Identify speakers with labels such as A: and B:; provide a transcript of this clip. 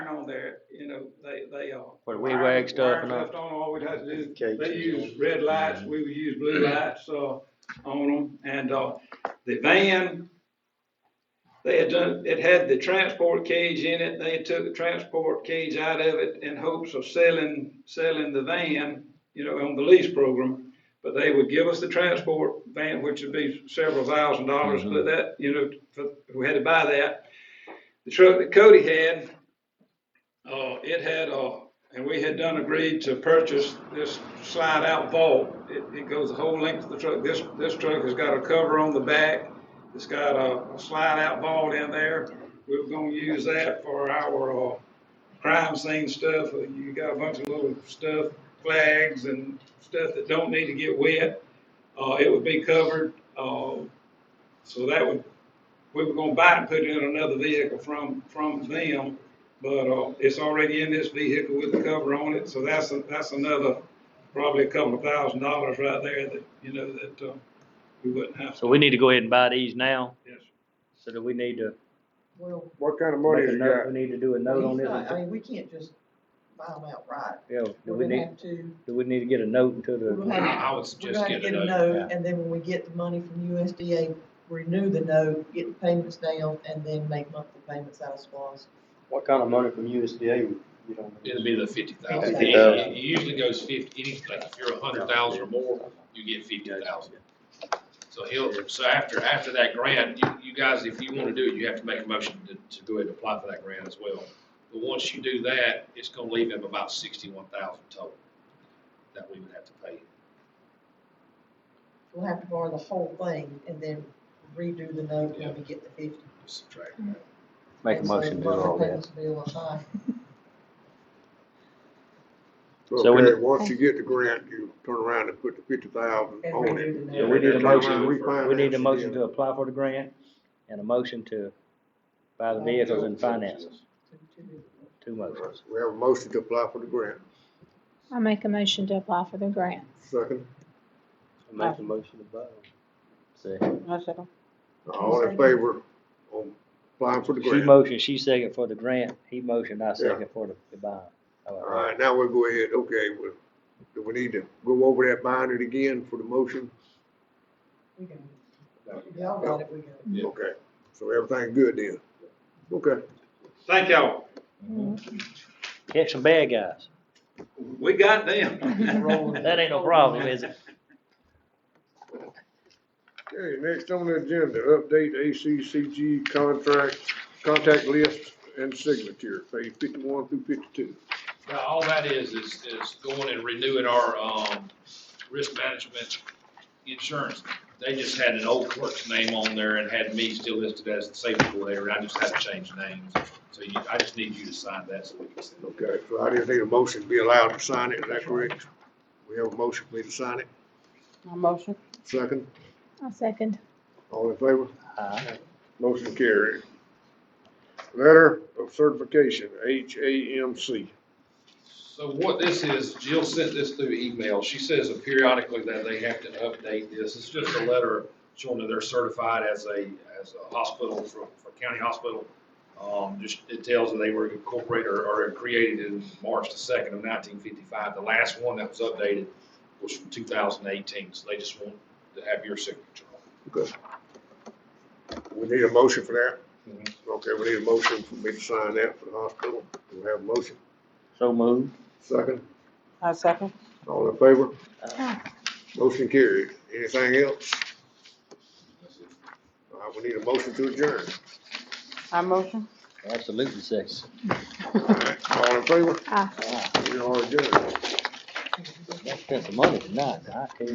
A: there, you know, they, they are.
B: For the wee wag stuff and
A: Wire
B: all.
A: stuff on, all we'd have to do,
C: Cages.
A: they use red lights, we would use blue
B: Mm-hmm.
A: lights, uh, on them, and, uh, the van, they had done, it had the transport cage in it, they took the transport cage out of it in hopes of selling, selling the van, you know, on the lease program. But they would give us the transport van, which would be several thousand dollars,
B: Mm-hmm.
A: but that, you know, for, we had to buy that. The truck that Cody had, uh, it had, uh, and we had done agreed to purchase this slide out vault. It, it goes the whole length of the truck. This, this truck has got a cover on the back. It's got a, a slide out vault in there. We were gonna use that for our, uh, crime scene stuff. You got a bunch of little stuff, flags and stuff that don't need to get wet. Uh, it would be covered, uh, so that would, we were gonna buy it and put it in another vehicle from, from them. But, uh, it's already in this vehicle with the cover on it, so that's, a- that's another, probably a couple of thousand dollars right there that, you know, that, uh, we wouldn't have.
B: So we need to go ahead and buy these now,
A: Yes, sir.
B: so that we need to
D: Well,
C: What kind of money
B: make a
C: you
B: note, we
C: got?
B: need to do a note on
D: he's not, I
B: this.
D: mean, we can't just buy them outright.
B: Yeah, do
D: We're
B: we
D: gonna
B: need,
D: have to,
B: do we need to get a note until
D: we're
B: the,
D: gonna have,
E: I would
D: we're
E: suggest
D: gonna
E: get
D: get
E: it
D: a
E: over.
D: note, and then when we get the money from USDA, renew the note, get the payments down, and then make monthly payments out of SPOS.
F: What kind of money from USDA would you don't?
E: It'll be the fifty thousand.
C: 50,000.
E: It usually goes fifty, any, like if you're a hundred thousand or more, you get fifty thousand. So he'll, so after, after that grant, you, you guys, if you wanna do it, you have to make a motion to, to go ahead and apply for that grant as well. But once you do that, it's gonna leave him about sixty-one thousand total that we would have to pay.
D: We'll have to borrow the whole thing and then redo the note when we get the fifty.
E: Subtract.
B: make a
D: And so
B: motion to
D: the
B: do all
D: monthly
B: that?
D: payments will be a lot higher.
B: So we-
C: Okay, once you get the grant, you turn around and put the fifty thousand
D: And
C: on it.
D: redo the
E: Yeah,
D: note.
B: we need a
C: Turn around
B: motion.
C: and refinance
B: We need a
C: the
B: motion to
C: deal.
B: apply for the grant and a motion to buy the vehicles and finance, us.
D: To- to do the note.
B: two motions.
C: We have a motion to apply for the grant.
G: I make a motion to apply for the grant.
C: Second,
F: Make a motion to buy.
B: See,
C: all in favor on applying for the
B: she
C: grant?
B: motioned, she second for the grant, he motioned, I second for the, the bond. All
C: All
B: right.
C: right, now we'll go ahead, okay, we, do we need to go over that bind it again for the motion?
D: We can- Y'all got it, we got it.
E: Yeah.
C: Okay, so everything good then? Okay.
A: Thank y'all.
B: Catch some bad guys.
A: We got them.
B: That ain't no problem, is it?
C: Okay, next on the agenda, update ACCG contract, contact list and signature, page fifty-one through fifty-two.
E: Now, all that is, is, is going and renewing our, um, risk management insurance. They just had an old clerk's name on there and had me still listed as the safety coordinator, and I just had to change names. So you, I just need you to sign that so we can send it.
C: Okay, so I just need a motion to be allowed to sign it, is that correct? We have a motion for me to sign it,
H: motion.
C: second,
G: I'll second.
C: all in favor?
B: Aye.
C: Motion carried. Letter of certification, HAMC.
E: So what this is, Jill sent this through email. She says that periodically that they have to update this. It's just a letter showing that they're certified as a, as a hospital for, for county hospital. Um, just, it tells that they were incorporated or, or created in March the second of nineteen fifty-five. The last one that was updated was from two thousand eighteen, so they just want to have your signature on it.
C: We need a motion for that?
E: Mhm.
B: Mm-hmm.
C: Okay, we need a motion for me to sign that for the hospital, we have a motion,
B: So moved.
C: second,
H: I second.
C: all in favor?
B: Uh,
G: Aye.
C: Motion carried. Anything else? All right, we need a motion to adjourn.
H: I motion.
B: Absolutely sexy.
C: All right, All in favor?
G: Aye.
C: We are adjourned.
B: They spent some money tonight, I tell you.